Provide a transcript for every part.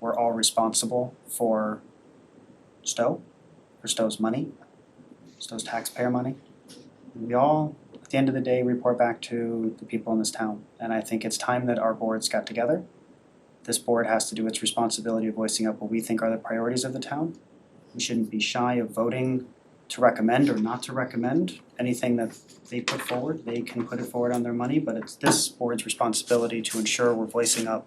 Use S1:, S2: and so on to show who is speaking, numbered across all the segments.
S1: we're all responsible for Stowe, for Stowe's money, Stowe's taxpayer money. And We all, at the end of the day, report back to the people in this town. And I think it's time that our boards got together. This board has to do its responsibility of voicing up what we think are the priorities of the town. We shouldn't be shy of voting to recommend or not to recommend anything that they put forward. They can put it forward on their money, but it's this board's responsibility to ensure we're voicing up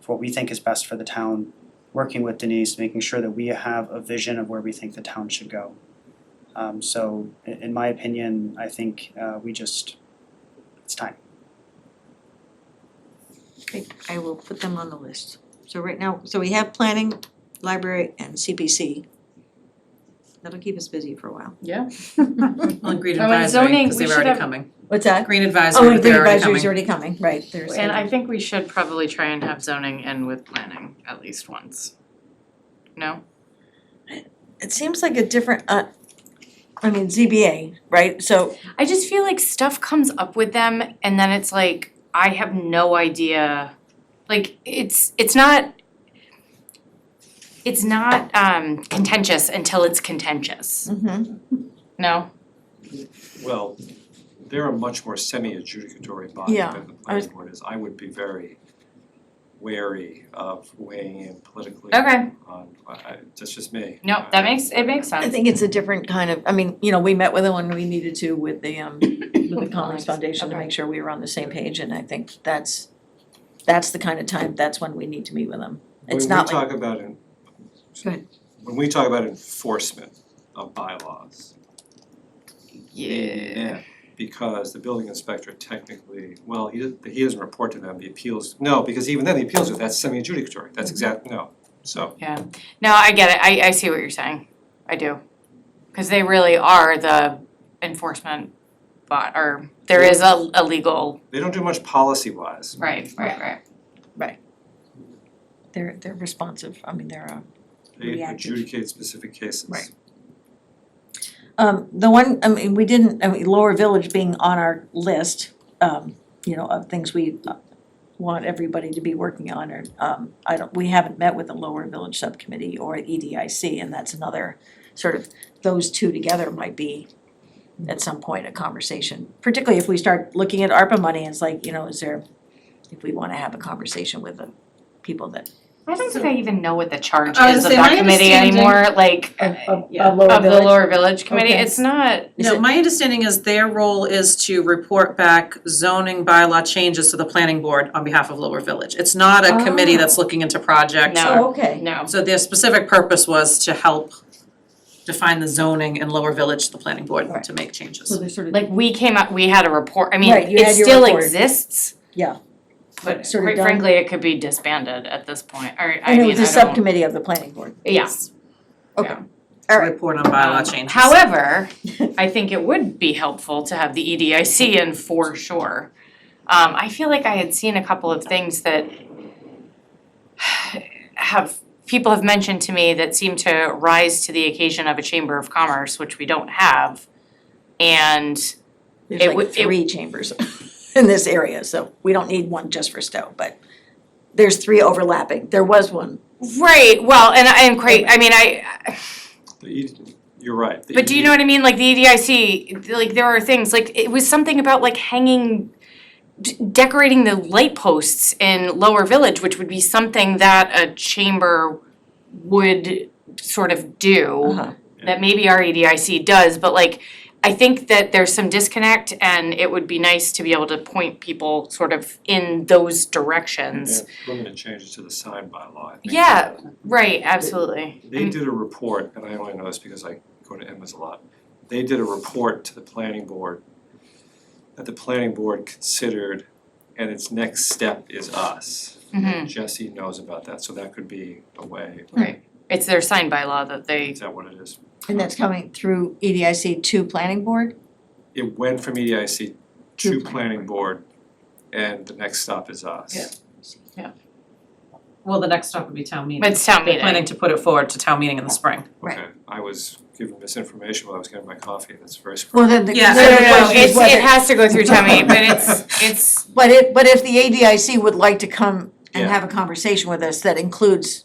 S1: for what we think is best for the town, working with Denise, making sure that we have a vision of where we think the town should go. Um, so i- in, my opinion, I think, uh, we just, it's time.
S2: Okay, I will put them on the list. So right now, so we have planning, library and CPC. That'll keep us busy for a while.
S3: Yeah.
S4: On green
S3: Oh, and
S4: advisory,
S3: zoning,
S4: because
S3: we
S4: they're
S3: should
S4: already
S3: have-
S4: coming.
S2: What's that?
S4: Green advisory,
S2: Oh, and
S4: but
S2: green
S4: they're already
S2: advisory's
S4: coming.
S2: already coming, right, there's.
S3: And I think we should probably try and have zoning in with planning at least once. No?
S2: It seems like a different, uh, I mean, ZBA, right, so,
S3: I just feel like stuff comes up with them and then it's like, I have no idea. Like, it's, it's not, it's not um contentious until it's contentious,
S2: mhm,
S3: no?
S5: Well, they're a much more semi-adjudicatory body
S2: Yeah,
S5: than the
S2: I was-
S5: planning board is. I would be very wary of weighing in politically
S3: Okay.
S5: on, I, I, that's just me.
S3: No, that makes, it makes
S2: I
S3: sense.
S2: think it's a different kind of, I mean, you know, we met with them when we needed to with the, um, with the Commerce Foundation to
S3: Okay.
S2: make sure we were on the same page, and I think that's, that's the kind of time, that's when we need to meet with them. It's not like,
S5: When we talk about en-
S2: Go ahead.
S5: When we talk about enforcement of bylaws.
S3: Yeah.
S5: yeah, Because the building inspector technically, well, he doesn't, he doesn't report to them, the appeals, no, because even then, the appeals are, that's semi-adjudicatory,
S3: Mm-hmm.
S5: that's exact, no, so.
S3: No, I get it. I, I see what you're saying. I do. Because they really are the enforcement bot, or there is a, a legal,
S5: They don't do much policy-wise.
S3: right, right, right.
S2: they're, they're responsive, I mean, they're, uh,
S5: They
S2: Reactive.
S5: adjudicate specific cases.
S2: Right. Um, the one, I mean, we didn't, I mean, Lower Village being on our list, um, you know, of things we uh, want everybody to be working on, or, um, I don't, we haven't met with the Lower Village Subcommittee or E EDIC, and that's another sort of, those two together might be at some point a conversation, particularly if we start looking at ARPA money, it's like, you know, is there, if we wanna have a conversation with the people that.
S3: I don't think I even know what the charge
S6: I was
S3: is of
S6: gonna say,
S3: that
S6: my
S3: committee anymore, like,
S2: Uh,
S6: yeah.
S2: Oh,
S3: of the Lower Village Committee.
S2: Okay.
S3: It's not,
S2: Is
S4: No,
S2: it-
S4: my understanding is their role is to report back zoning bylaw changes to the planning board on behalf of Lower Village. It's not a committee that's looking into projects
S3: No.
S4: or-
S2: Oh, okay,
S3: no.
S4: So their specific purpose was to help define the zoning in Lower Village to the planning board to make
S2: so
S4: changes.
S2: they're sort of,
S3: Like, we came up, we had a report, I mean,
S2: Right, you
S3: it
S2: had your
S3: still
S2: report.
S3: exists,
S2: yeah,
S3: but
S2: Sort of
S3: quite
S2: done.
S3: frankly, it could be disbanded at this point, or, I
S2: and it was
S3: mean, I
S2: a
S3: don't,
S2: subcommittee of the planning board,
S3: yeah.
S2: okay.
S3: Yeah.
S2: All right.
S4: Report on bylaw
S3: Um,
S4: changes.
S3: However, I think it would be helpful to have the E EDIC in for sure. Um, I feel like I had seen a couple of things that have, people have mentioned to me that seem to rise to the occasion of a Chamber of Commerce, which we don't have. And It
S2: There's
S3: would-
S2: like
S3: it-
S2: three chambers in this area, so we don't need one just for Stowe, but there's three overlapping. There was one.
S3: Right, well, and I am quite, I mean, I,
S5: The E- You're right. the
S3: but do you
S5: E-
S3: know what I mean? Like the EDIC, like there are things, like it was something about like hanging, d- decorating the light posts in Lower Village, which would be something that a chamber would sort of do, that maybe our E EDIC does, but like, I think that there's some disconnect and it would be nice to be able to point people sort of in those
S5: Yeah,
S3: directions.
S5: Limited changes to the sign bylaw. I think.
S3: Yeah, Mm. right, absolutely.
S5: They did a report, and I only know this because I go to Emma's a lot. They did a report to the planning board that the planning board considered, and its next step is us.
S3: Mhm.
S5: Jesse knows about that, so that could be a way.
S3: Right. It's their sign by law that they,
S5: Is that what it is?
S2: And that's coming through E EDIC to planning board?
S5: It went from E EDIC
S2: To
S5: to
S2: planning
S5: planning board, and the next stop is us.
S4: Yeah.
S3: yeah,
S4: Well, the next stop would be town meeting.
S3: but it's town
S4: They're planning
S3: meeting.
S4: to put it forward to town meeting in the spring.
S2: Right.
S5: Okay, I was given misinformation while I was getting my coffee, that's very
S2: Well,
S5: surprising.
S2: then the
S4: Yeah.
S3: No, no,
S2: the
S3: no,
S2: question
S3: it's,
S2: is
S3: it
S2: whether,
S3: has to go through town meeting, but it's, it's,
S2: but if, but if the ADIC would like to come and
S5: Yeah.
S2: have a conversation with us that includes